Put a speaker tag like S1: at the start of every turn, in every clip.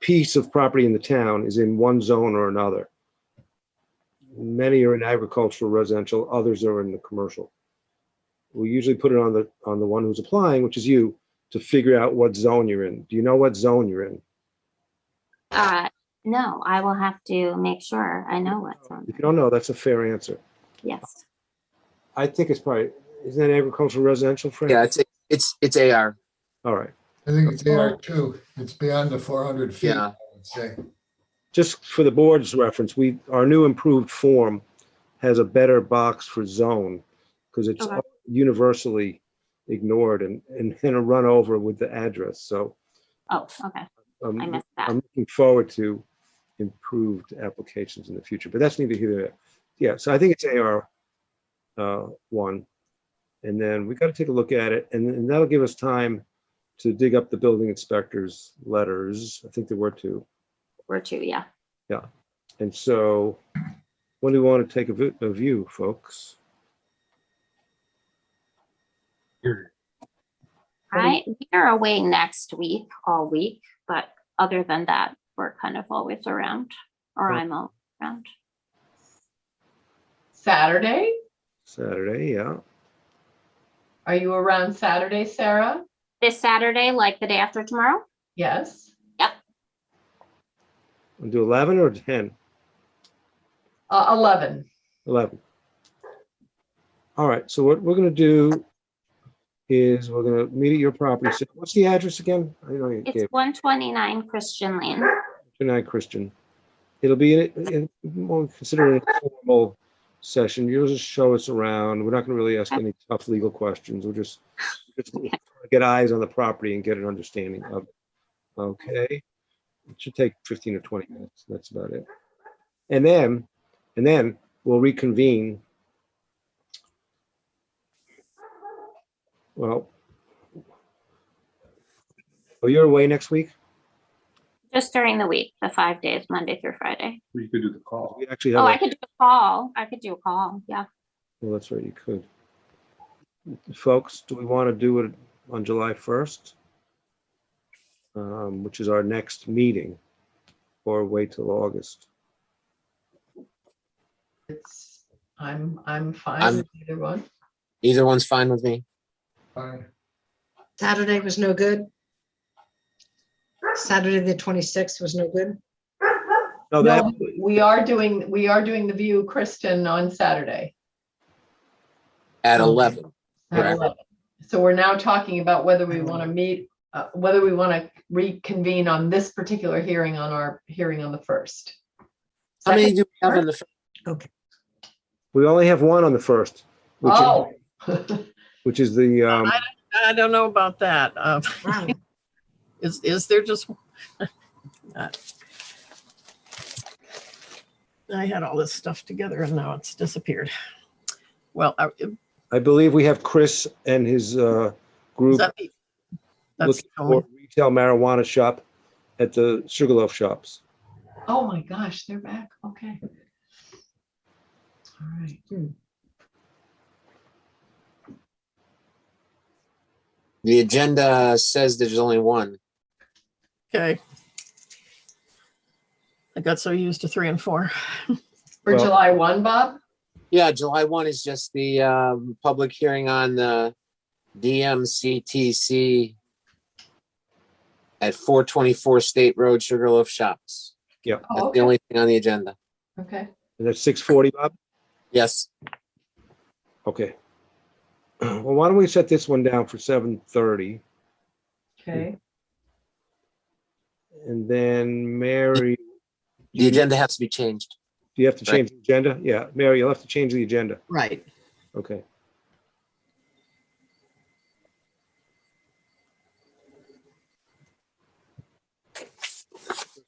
S1: piece of property in the town is in one zone or another. Many are in agricultural, residential, others are in the commercial. We usually put it on the, on the one who's applying, which is you, to figure out what zone you're in. Do you know what zone you're in?
S2: Uh, no, I will have to make sure I know what's on
S1: If you
S2: there.
S1: don't know, that's a fair answer.
S2: Yes.
S1: I think it's probably, isn't that agricultural, residential, Frank?
S3: Yeah, it's, it's, it's AR.
S1: All right.
S4: I think it's AR two. It's beyond the four hundred feet,
S3: Yeah.
S4: I would say.
S1: just for the board's reference, we, our new improved form has a better box for zone because it's
S2: Okay.
S1: universally ignored and, and and a run over with the address. So
S2: Oh, okay.
S1: um,
S2: I missed that.
S1: I'm looking forward to improved applications in the future, but that's neither here nor there. Yeah, so I think it's AR uh, one. And then we got to take a look at it and and that'll give us time to dig up the building inspector's letters. I think there were two.
S2: We're two, yeah.
S1: And so, when do we want to take a vi- a view, folks? um,
S2: I, we are away next week, all week, but other than that, we're kind of always around, or
S1: Oh.
S2: I'm all around.
S5: Saturday?
S1: Saturday, yeah.
S5: Are you around Saturday, Sarah?
S2: This Saturday, like the day after tomorrow?
S5: Yes.
S1: We'll do 11 or 10?
S5: Uh, 11.
S1: 11. All right, so what we're going to do is we're going to meet at your property. So What's the address again? I know you
S2: It's
S1: gave
S2: one twenty-nine Christian Lane.
S1: tonight, Christian. It'll be, in- in- we'll consider it an informal session. You'll just show us around. We're not going to really ask any tough legal questions. We'll just just get eyes on the property and get an understanding of it. Okay, it should take fifteen or twenty minutes, that's about it. And then, and then we'll reconvene. Well. Oh, you're away next week?
S2: Just during the week, the five days, Monday through Friday.
S6: You could do the call.
S1: We actually have,
S2: Oh, I
S1: a-
S2: could do a call. I could do a call, yeah.
S1: well, that's right, you could. Folks, do we want to do it on July first? Um, which is our next meeting, or wait till August?
S5: It's, I'm, I'm fine
S3: I'm-
S5: with either one.
S3: Either one's fine with me.
S4: Fine.
S7: Saturday was no good. Saturday, the 26th was no good.
S3: Oh,
S1: No, that,
S5: No, we are doing, we are doing the view, Kristen, on Saturday. Oh,
S3: At 11.
S5: at
S3: Correct.
S5: 11. So we're now talking about whether we want to meet, uh, whether we want to reconvene on this particular hearing on our hearing on the first.
S3: How many do we have on the, fir-
S1: we only have one on the first, which,
S5: Oh.
S1: which is the, um,
S8: I don't know about that. Um,
S7: Wow.
S8: Is, is there just? I had all this stuff together and now it's disappeared. Well, I- is
S1: I believe we have Chris and his, uh, group
S8: that the- that's
S1: looking for a retail marijuana shop at the Sugarloaf Shops.
S5: Oh, my gosh, they're back. Okay. All right.
S3: Hmm. the agenda says there's only one.
S8: okay. I got so used to three and four.
S5: For
S1: Well-
S5: July 1, Bob?
S3: Yeah, July 1 is just the um, public hearing on the DMCTC at 424 State Road Sugarloaf Shops.
S5: Oh,
S3: That's the
S5: okay.
S3: only thing on the agenda.
S5: Okay.
S1: And that's six forty, Bob?
S3: Yes,
S1: Okay. Well, why don't we set this one down for seven thirty?
S5: Okay.
S1: And then Mary,
S5: Mm-hmm.
S3: the agenda has to be changed.
S1: do you have to change the agenda? Yeah, Mary, you'll have to change the agenda.
S8: Right.
S1: Okay.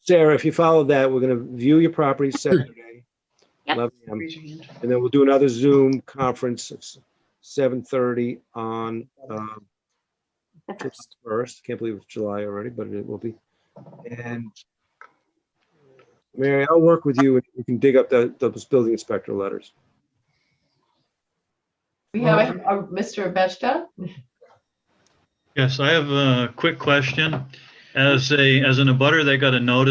S1: Sarah, if you follow that, we're going to view your property Saturday.
S2: Yep.
S1: 11 a.m., And then we'll do another Zoom conference at 7:30 on um,
S2: The
S1: July
S2: first.
S1: 1st. Can't believe it's July already, but it will be. And Mary, I'll work with you. and You can dig up the- those building inspector letters.
S5: We have a, a Mr. Abeshta?
S9: Yes, I have a quick question. As a, as an abutter, they got a notice